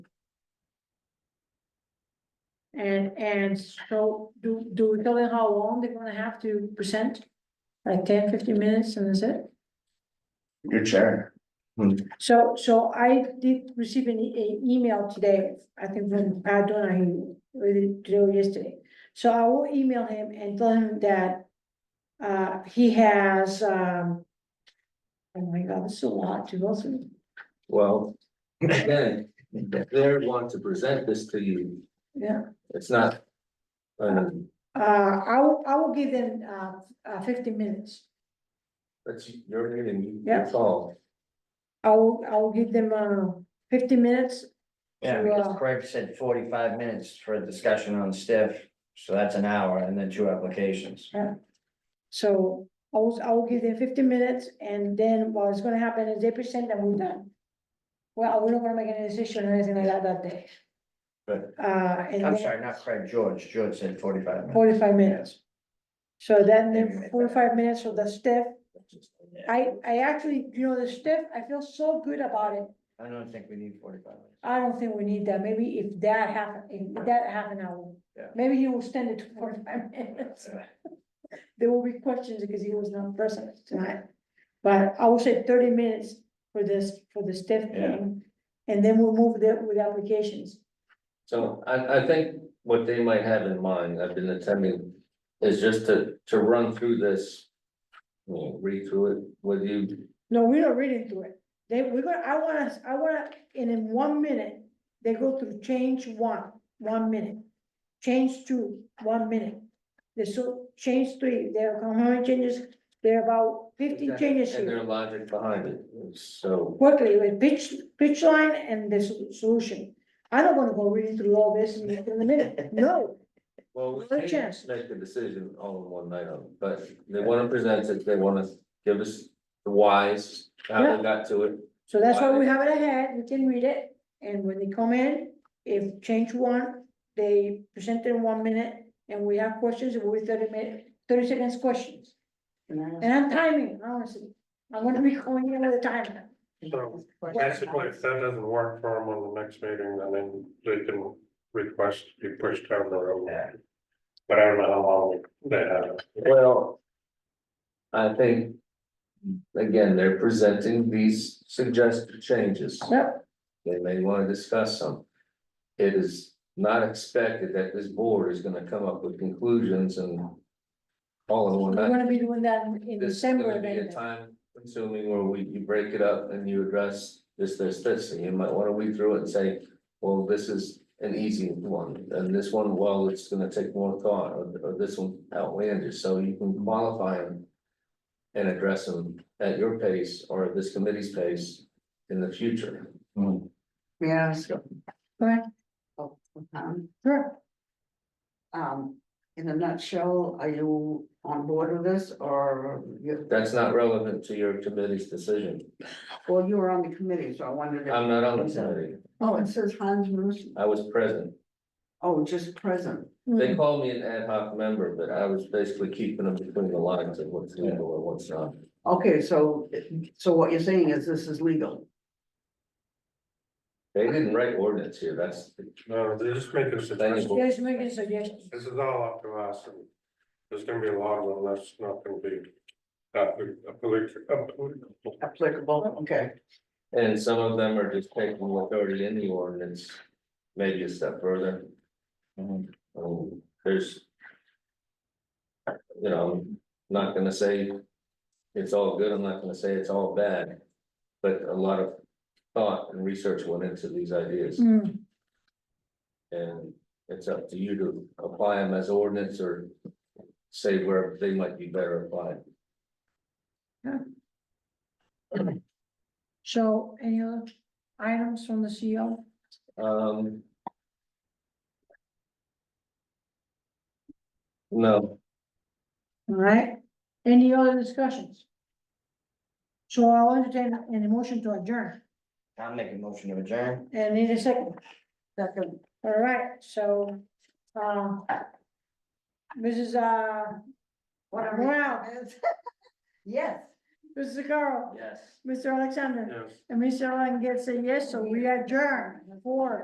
And, and so do, do we tell them how long they're gonna have to present? Like 10, 15 minutes and that's it? Your chair. So, so I did receive an e- a email today, I think from Pat Donahue, really today or yesterday. So I will email him and tell him that uh, he has, um, oh my God, this is a lot to go through. Well, again, they're want to present this to you, Yeah, it's not. Um, uh, I will, I will give them uh, uh, fifteen minutes. that's your meeting, Yeah. your call. I will, I will give them uh, fifteen minutes. Yeah, because Craig said forty-five minutes for a discussion on stiff, so that's an hour and then two applications. So I will, I will give them fifteen minutes and then what's gonna happen is they present and we're done. Well, we're not gonna make any decision or anything like that that day. But Uh, and I'm then sorry, not Craig, George. George said forty-five minutes. forty-five minutes. So then Maybe the make forty-five minutes of the staff, I, I actually, you know, the staff, I feel so good about it. I don't think we need forty-five minutes. I don't think we need that. Maybe if that happen, if that half an hour. Yeah. Maybe he will stand it to forty-five minutes. There will be questions because he was not present tonight. But I will say thirty minutes for this, for the staff Yeah. meeting. And then we'll move there with applications. So I, I think what they might have in mind, I've been attending, is just to, to run through this. you know, read through it with you, No, we are reading through it. They, we're gonna, I wanna, I wanna, and in one minute, they go through change one, one minute. Change two, one minute. They so, change three, there are how many changes? There are about fifteen changes and their here. logic behind it, so. Quickly, with pitch, pitch line and the so- solution. I don't wanna go reading through all this in in a minute, no. Well, we Another can't chance. make the decision all in one night, um, but they wanna present it, they wanna give us the whys, how Yeah. they got to it. So that's why we have it ahead, we can read it, and when they come in, if change one, they present in one minute, and we have questions, it will be thirty minute, thirty seconds questions. And I'm timing, honestly, I'm gonna be calling you all the time. So basically, if that doesn't work for them on the next meeting, then they- they can request to be pushed down the road. But I don't know how long they have. Well. I think. Again, they're presenting these suggested changes, Yep, they may wanna discuss some. It is not expected that this board is gonna come up with conclusions and. All in one we're night. gonna be doing that in- in This is gonna December be a then. time consuming where we, you break it up and you address this, this, this, and you might wanna read through it and say. Well, this is an easy one, and this one, well, it's gonna take more thought, or, or this one outlandish, so you can qualify them. And address them at your pace or at this committee's pace in the future. Yeah. Go ahead. Um, Sure, um, in a nutshell, are you on board with this or you, That's not relevant to your committee's decision. well, you were on the committee, so I wondered. if- I'm not on the committee. Um, Oh, it says Hans Moos, I was present. oh, just present. They Mm. called me an ad hoc member, but I was basically keeping them between the lines of what's legal and what's not. Okay, so, so what you're saying is this is legal. They didn't write ordinance here, that's, No, they're just making suggestions. Yes, making suggestions. This is all up to us. and There's gonna be a lot of them that's not gonna be. uh, That applicable. Applicable, okay. and some of them are just taking what's already in the ordinance, maybe a step further. Um, there's. You know, I'm not gonna say it's all good, I'm not gonna say it's all bad, but a lot of thought and research went into these ideas. Mm. And it's up to you to apply them as ordinance or say where they might be better applied. So any other items from the E CEO? Um. No, All right, any other discussions? So I'll entertain an motion to adjourn, I'm making a motion to adjourn. and need a second, Second, all right, so, uh. Mrs. Uh, whatever. Wow. it is. Yes. Mrs. Carl, Yes. Mr. Alexander, Yes. and Mr. Allen gets a yes, so we adjourn, four.